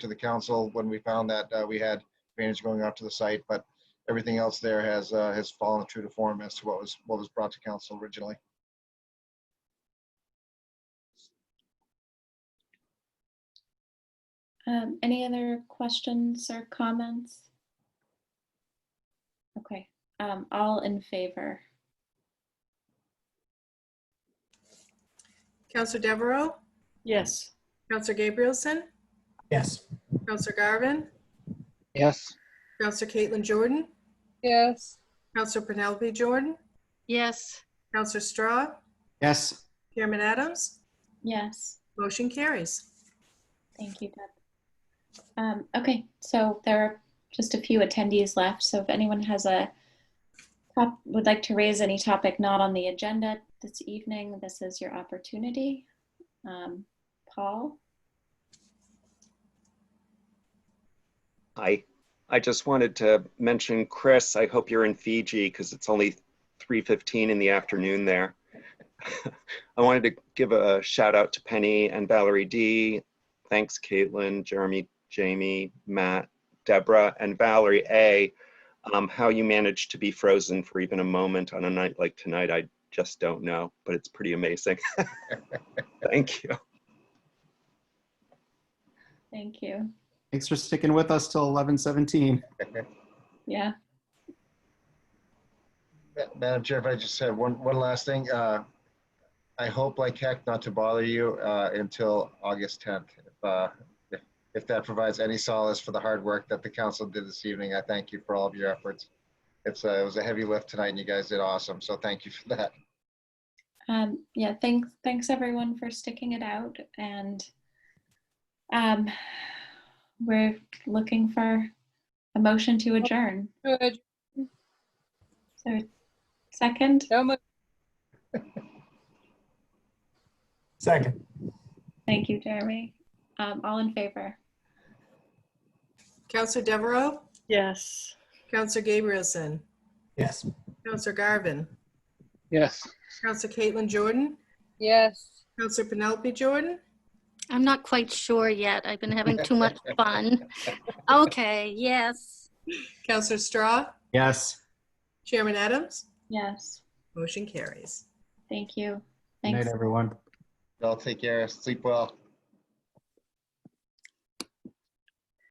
to the council when we found that uh, we had drainage going out to the site, but everything else there has, uh, has fallen true to form as to what was, what was brought to council originally. Um, any other questions or comments? Okay, um, all in favor? Counselor Deveraux, Yes. Counselor Gabrielson, Yes. Counselor Garvin, Yes. Counselor Caitlin Jordan, yes, Counselor Penelope Jordan, Yes. Counselor Straw, Yes. Chairman Adams, Yes, motion carries. thank you, Deb. Um, okay, so there are just a few attendees left, so if anyone has a top, would like to raise any topic not on the agenda this evening, this is your opportunity. Um, Paul? Hi, I just wanted to mention, Chris, I hope you're in Fiji because it's only 3:15 in the afternoon there. I wanted to give a shout out to Penny and Valerie D. Thanks, Caitlin, Jeremy, Jamie, Matt, Deborah, and Valerie A. Um, how you managed to be frozen for even a moment on a night like tonight, I just don't know, but it's pretty amazing. Thank you. Thank you. Thanks for sticking with us till 11:17. Yeah, Ma- Madam Chair, if I just said one, one last thing, uh, I hope like heck not to bother you, uh, until August 10th. If, uh, if- If that provides any solace for the hard work that the council did this evening, I thank you for all of your efforts. It's, uh, it was a heavy lift tonight and you guys did awesome, so thank you for that. um, yeah, thanks, thanks everyone for sticking it out and um, we're looking for a motion to adjourn. good, So second, so much, Second. thank you, Jeremy. Um, all in favor? Counselor Deveraux, Yes. Counselor Gabrielson, Yes. Counselor Garvin, Yes. Counselor Caitlin Jordan, yes. Counselor Penelope Jordan, I'm not quite sure yet. I've been having too much fun. Okay, yes. Counselor Straw, Yes. Chairman Adams, Yes, motion carries. thank you. Good Thanks. night, everyone. Y'all take care, sleep well.